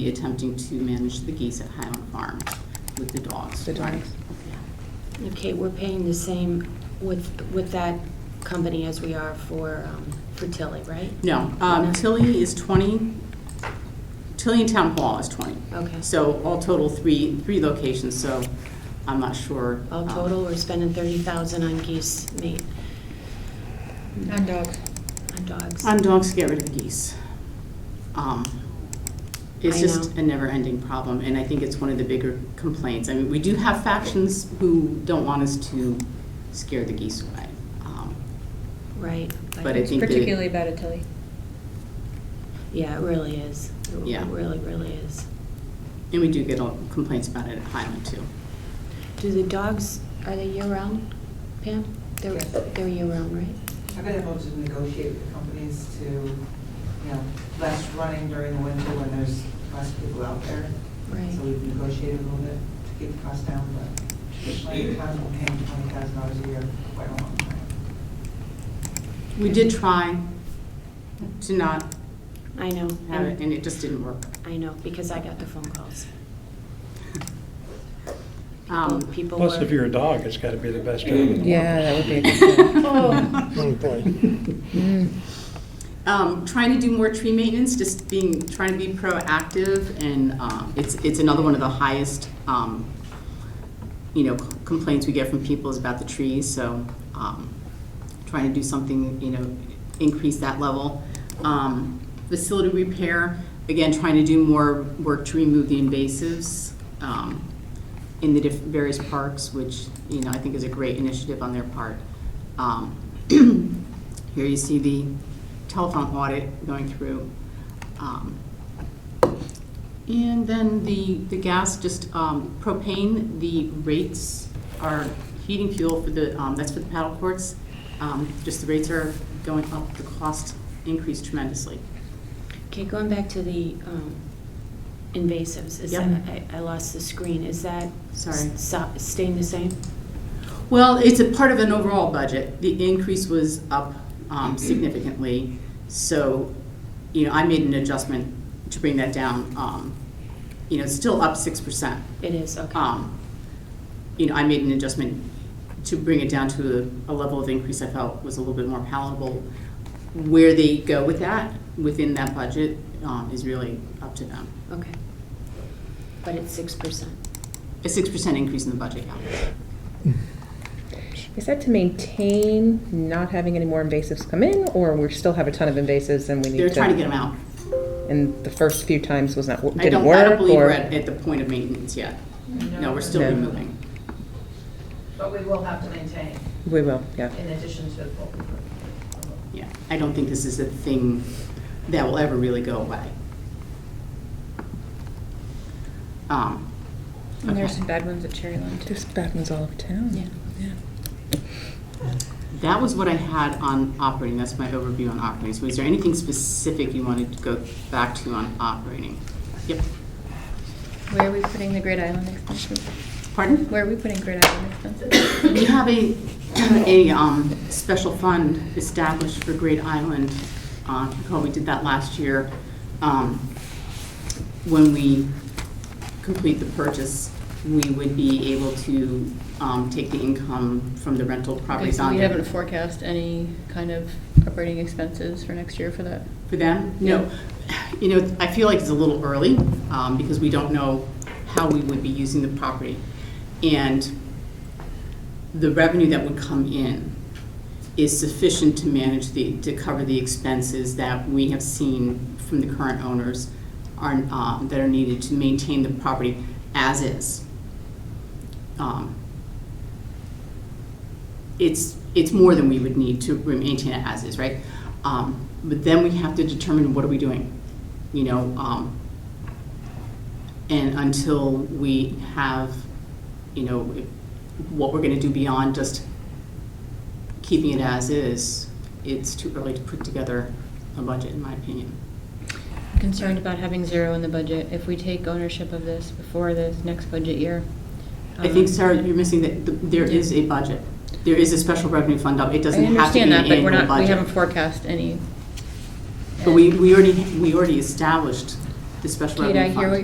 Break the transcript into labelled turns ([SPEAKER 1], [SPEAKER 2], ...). [SPEAKER 1] be attempting to manage the geese at Highland Farm with the dogs.
[SPEAKER 2] The dogs.
[SPEAKER 1] Right.
[SPEAKER 3] Okay, we're paying the same with, with that company as we are for, um, for Tilly, right?
[SPEAKER 1] No, um, Tilly is 20, Tilly and Town Hall is 20.
[SPEAKER 3] Okay.
[SPEAKER 1] So all total, three, three locations, so I'm not sure.
[SPEAKER 3] All
[SPEAKER 1] um,
[SPEAKER 3] total, we're spending thirty thousand on geese meat,
[SPEAKER 2] On dogs.
[SPEAKER 3] on dogs.
[SPEAKER 1] On dogs, to get rid of geese. Um, It's
[SPEAKER 3] I
[SPEAKER 1] just
[SPEAKER 3] know.
[SPEAKER 1] a never-ending problem, and I think it's one of the bigger complaints. I mean, we do have factions who don't want us to scare the geese away. Um,
[SPEAKER 3] Right.
[SPEAKER 1] But I think that-
[SPEAKER 2] Particularly about Tilly.
[SPEAKER 3] Yeah, it really is. It
[SPEAKER 1] Yeah.
[SPEAKER 3] Really, really is.
[SPEAKER 1] And we do get all- complaints about it at Highland, too.
[SPEAKER 3] Do the dogs, are they year-round, Pam? They're,
[SPEAKER 4] Yes.
[SPEAKER 3] they're year-round, right?
[SPEAKER 4] I've been able to negotiate with companies to, you know, less running during the winter when there's less people out there. So
[SPEAKER 3] Right.
[SPEAKER 4] we've negotiated a little bit to keep the cost down, but traditionally, towns will pay twenty thousand dollars a year for quite a long time.
[SPEAKER 1] We did try to not
[SPEAKER 3] I know.
[SPEAKER 1] have it, and it just didn't work.
[SPEAKER 3] I know, because I got the phone calls.
[SPEAKER 1] Um,
[SPEAKER 3] People were.
[SPEAKER 5] Plus, if you're a dog, it's gotta be the best job in the world.
[SPEAKER 2] Yeah, that would be a good one.
[SPEAKER 6] Oh, boy.
[SPEAKER 2] Mm.
[SPEAKER 1] um, Trying to do more tree maintenance, just being, trying to be proactive, and um, it's, it's another one of the highest, um, you know, complaints we get from people is about the trees, so um, trying to do something, you know, increase that level. Um, Facility repair, again, trying to do more work to remove the invasives um, in the diff- various parks, which, you know, I think is a great initiative on their part. Um, Here you see the telephone audit going through. Um, and then the, the gas, just um, propane, the rates are, heating fuel for the, um, that's for the paddle courts, um, just the rates are going up, the cost increased tremendously.
[SPEAKER 3] Okay, going back to the um, invasives, is
[SPEAKER 1] Yep.
[SPEAKER 3] that, I- I lost the screen, is that?
[SPEAKER 1] Sorry.
[SPEAKER 3] s- so- Staying the same?
[SPEAKER 1] Well, it's a part of an overall budget. The increase was up um, significantly, so, you know, I made an adjustment to bring that down. um, You know, it's still up 6%.
[SPEAKER 3] It is, okay.
[SPEAKER 1] um, you know, I made an adjustment to bring it down to a a level of increase I felt was a little bit more palatable. Where they go with that, within that budget, um, is really up to them.
[SPEAKER 3] Okay. But it's 6%.
[SPEAKER 1] A six percent increase in the budget, yeah.
[SPEAKER 2] Is that to maintain not having any more invasives come in, or we still have a ton of invasives and we need to?
[SPEAKER 1] They're trying to get them out.
[SPEAKER 2] And the first few times was not,
[SPEAKER 1] I
[SPEAKER 2] didn't
[SPEAKER 1] don't,
[SPEAKER 2] work, or?
[SPEAKER 1] I don't believe we're at, at the point of maintenance yet. No, we're still
[SPEAKER 2] No.
[SPEAKER 1] removing.
[SPEAKER 7] But we will have to maintain
[SPEAKER 2] We will, yeah.
[SPEAKER 7] in addition to what we
[SPEAKER 1] Yeah, I don't think this is a thing that will ever really go away. Um,
[SPEAKER 8] And there's
[SPEAKER 1] okay.
[SPEAKER 8] some bad ones at Cherryland too.
[SPEAKER 2] There's bad ones all over town.
[SPEAKER 8] Yeah.
[SPEAKER 1] That was what I had on operating, that's my overview on operating. So is there anything specific you wanted to go back to on operating? Yep,
[SPEAKER 8] Where are we putting the Great Island expenses?
[SPEAKER 1] pardon?
[SPEAKER 8] Where are we putting Great Island expenses?
[SPEAKER 1] We have a, a um, special fund established for Great Island. Uh, if you Recall, we did that last year um, when we complete the purchase, we would be able to um, take the income from the rental
[SPEAKER 8] Okay,
[SPEAKER 1] properties
[SPEAKER 8] so
[SPEAKER 1] on
[SPEAKER 8] we
[SPEAKER 1] there.
[SPEAKER 8] haven't forecast any kind of operating expenses for next year for that.
[SPEAKER 1] For them? No. You know, I feel like it's a little early um, because we don't know how we would be using the property. And the revenue that would come in is sufficient to manage the, to cover the expenses that we have seen from the current owners are, um, that are needed to maintain the property as is. Um, it's, it's more than we would need to maintain it as is, right? Um, But then we have to determine what are we doing, you know? um, And until we have, you know, what we're gonna do beyond just keeping it as is, it's too early to put together a budget, in my opinion.
[SPEAKER 8] Concerned about having zero in the budget. If we take ownership of this before the next budget year.
[SPEAKER 1] I think,
[SPEAKER 8] um,
[SPEAKER 1] Sarah, you're missing that th- there is a budget. There is a special revenue fund up. It doesn't have to be an
[SPEAKER 8] I understand that, but
[SPEAKER 1] annual
[SPEAKER 8] we're
[SPEAKER 1] budget.
[SPEAKER 8] not, we haven't forecast any.
[SPEAKER 1] But we, we already, we already established
[SPEAKER 9] the special
[SPEAKER 1] Kate, I
[SPEAKER 9] revenue fund.
[SPEAKER 1] hear what